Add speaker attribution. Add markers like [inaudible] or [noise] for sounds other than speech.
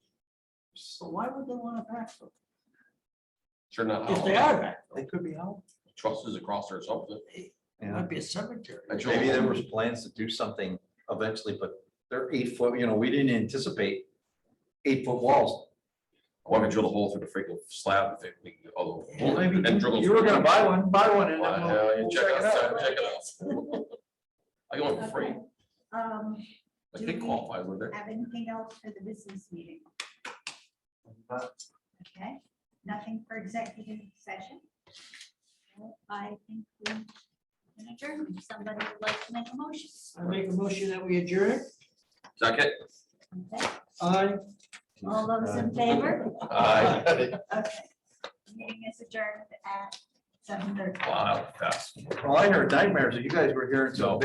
Speaker 1: So why would they want to backfill?
Speaker 2: Sure not.
Speaker 1: If they are backfilled,
Speaker 3: They could be out.
Speaker 2: Trusses across there or something.
Speaker 1: it might be a cemetery.
Speaker 2: I
Speaker 3: Maybe there was plans to do something eventually, but they're eight foot, you know, we didn't anticipate eight foot walls.
Speaker 2: want to drill a hole through the freaking slab if they, we- although.
Speaker 3: Well, maybe
Speaker 2: and drill a-
Speaker 3: you were gonna buy one, buy one and
Speaker 2: Why,
Speaker 3: then
Speaker 2: uh,
Speaker 3: we'll-
Speaker 2: you
Speaker 3: we'll
Speaker 2: Check
Speaker 3: check
Speaker 2: it
Speaker 3: it out.
Speaker 2: out, check it out. [laughs] I go for free,
Speaker 4: Okay. Um,
Speaker 2: like they
Speaker 4: Do we-
Speaker 2: qualify with there.
Speaker 4: have anything else for the business meeting? Okay, nothing for executive session? Well, I think we can adjourn. If Somebody would like to make a motion.
Speaker 1: I make a motion that we adjourn.
Speaker 2: Second.
Speaker 4: Okay,
Speaker 1: Aye.
Speaker 4: All those in favor?
Speaker 2: Aye.
Speaker 3: [laughs]
Speaker 4: Okay. Meeting is adjourned at seven thirty. Uh,
Speaker 2: Wow, fast.
Speaker 3: Well, I heard nightmares that you guys were hearing
Speaker 2: No.
Speaker 3: some